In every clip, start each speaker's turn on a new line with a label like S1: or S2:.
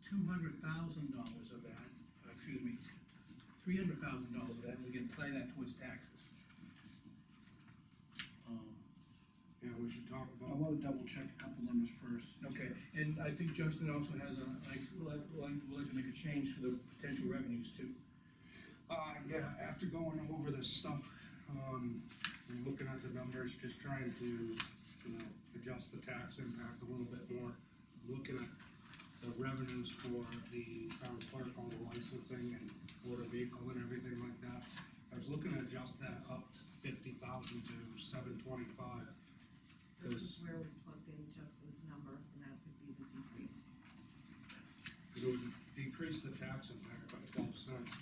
S1: two hundred thousand dollars of that, uh, excuse me, three hundred thousand dollars of that, we can apply that towards taxes. Um,
S2: Yeah, we should talk
S3: I
S2: about,
S3: wanna double check a couple numbers first.
S1: Okay, and I think Justin also has a, like, would like, would like to make a change for the potential revenues too.
S2: uh, yeah, after going over this stuff, um, and looking at the numbers, just trying to, you know, adjust the tax impact a little bit more. Looking at the revenues for the town clerk, all the licensing and motor vehicle and everything like that. I was looking to adjust that up to fifty thousand to seven twenty-five.
S4: This is where we plugged in Justin's number, and that would be the decrease.
S2: Because it would decrease the tax impact by twelve cents,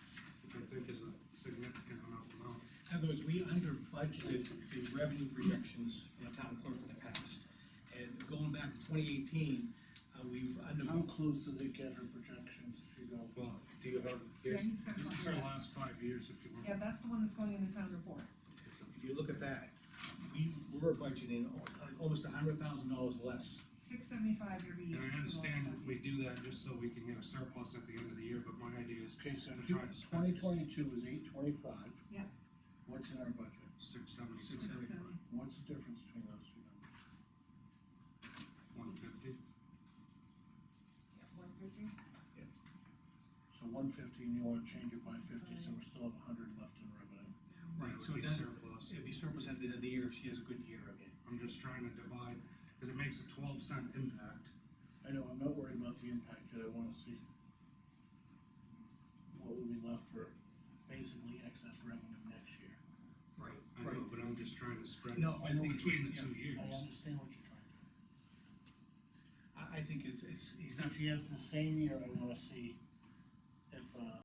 S2: which I think is a significant enough amount.
S1: In other words, we under budgeted the revenue projections for the town clerk in the past. And going back to twenty eighteen, uh, we've under,
S3: How close does it get her projections if you go?
S2: Well, do you have,
S4: Yeah,
S2: here's,
S4: he's got
S2: this is
S4: one.
S2: our last five years, if you want.
S4: Yeah, that's the one that's going in the town report.
S1: if you look at that, we were budgeting al- almost a hundred thousand dollars less.
S4: Six seventy-five every year.
S2: And I
S4: for the last
S2: understand
S4: time.
S2: we do that just so we can get a surplus at the end of the year, but my idea is
S3: Okay, so
S2: I'm trying to spend
S3: twenty
S2: this.
S3: twenty-two is eight twenty-five.
S4: Yeah.
S3: What's in our budget?
S2: six seventy,
S1: Six
S2: six,
S1: seventy.
S3: What's the difference between those two numbers?
S2: one fifty.
S4: One fifty?
S3: So one fifty, and you wanna change it by fifty, so we still have a hundred left in revenue.
S1: Right, so it
S2: Would be
S1: doesn't-
S2: surplus.
S1: It'd be surplus at the end of the year if she has a good year again.
S2: I'm just trying to divide, because it makes a twelve cent impact.
S3: I know, I'm not worried about the impact, yet I wanna see what will be left for basically excess revenue next year.
S1: Right.
S2: I know, but I'm just trying to spread it
S1: No, I think-
S2: between the
S1: yeah,
S2: two years.
S3: I understand what you're trying to do.
S1: I, I think it's, it's, he's not,
S3: If she has the same year, I wanna see if, uh,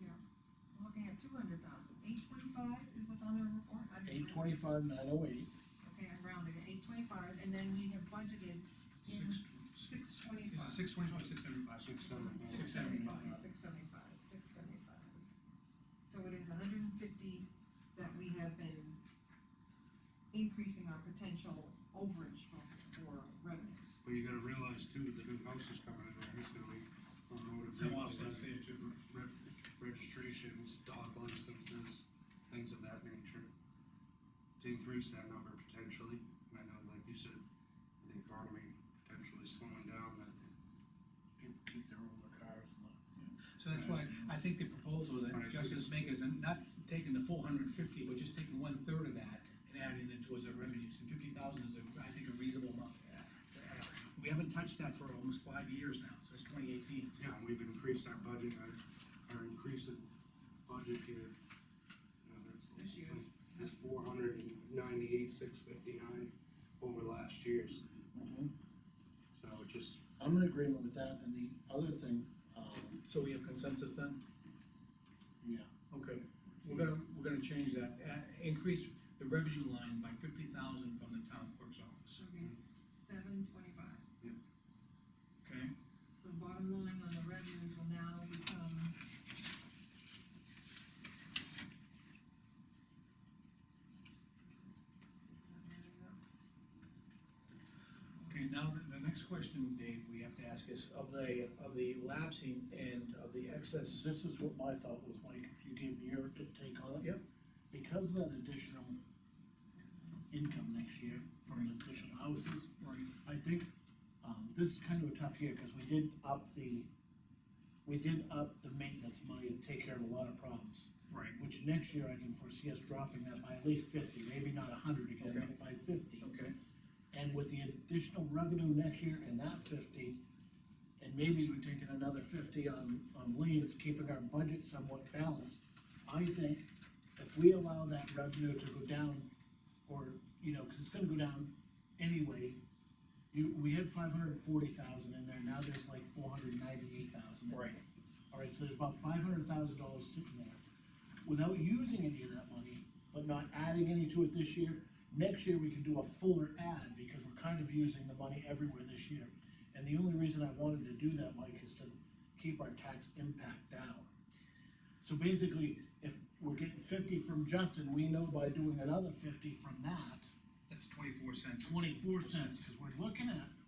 S4: Yeah, We're looking at two hundred thousand. Eight twenty-five is what's on the report. I
S3: eight
S4: didn't round it.
S3: twenty-five, nine oh eight,
S4: Okay, I rounded it, eight twenty-five, and then we have budgeted in
S1: six, is
S4: six
S1: it
S4: twenty-five.
S1: six twenty-five, six seventy-five?
S2: Six seventy-five.
S4: Six seventy-five, six seventy-five, six seventy-five. So it is hundred and fifty that we have been increasing our potential overage for, for revenues.
S2: But you gotta realize too, the new house is coming in, there, there's gonna be a motor
S1: Some
S2: vehicle
S1: offsets there too.
S2: reg- registrations, dog licenses, things of that nature. To increase that number potentially, and I know, like you said, the economy potentially slowing down, that
S3: people keep their older cars and the.
S1: So that's why I think the proposal that
S2: Right.
S1: Justice making is not taking the four hundred and fifty, but just taking one third of that and adding it towards our revenues, and fifty thousand is, a- I think, a reasonable amount. Uh, We haven't touched that for almost five years now, since twenty eighteen.
S2: Yeah, and we've increased our budget, our, our increase in budget here. you know, that's-
S4: This year's.
S2: Is four hundred and ninety-eight, six fifty-nine over last year's, so it just,
S3: Mm-hmm. I'm in agreement with that, and the other thing, um,
S1: So we have consensus then?
S3: yeah,
S1: Okay, we're gonna, we're gonna change that, uh, increase the revenue line by fifty thousand from the town clerk's office,
S4: Should be seven twenty-five.
S1: okay?
S4: So the bottom line on the revenues will now become.
S1: Okay, now, the, the next question, Dave, we have to ask is, of the, of the lapsing and of the excess,
S3: this is what my thought was, Mike, you gave me your take on it.
S1: Yep.
S3: Because of that additional income next year from the additional houses,
S1: right,
S3: I think, um, this is kind of a tough year, cause we did up the, we did up the maintenance money to take care of a lot of problems.
S1: right,
S3: Which next year I can foresee us dropping that by at least fifty, maybe not hundred again,
S1: Okay.
S3: but by fifty.
S1: okay,
S3: And with the additional revenue next year and that fifty, and maybe we're taking another fifty on, on liens, keeping our budget somewhat balanced. I think if we allow that revenue to go down, or, you know, cause it's gonna go down anyway. You, we had five hundred and forty thousand in there, now there's like four hundred and ninety-eight thousand.
S1: right.
S3: All right, so there's about five hundred thousand dollars sitting there. Without using any of that money, but not adding any to it this year, next year we can do a fuller add, because we're kind of using the money everywhere this year. And the only reason I wanted to do that, Mike, is to keep our tax impact down. So basically, if we're getting fifty from Justin, we know by doing another fifty from that,
S1: That's twenty-four cents.
S3: twenty-four cents is we're looking at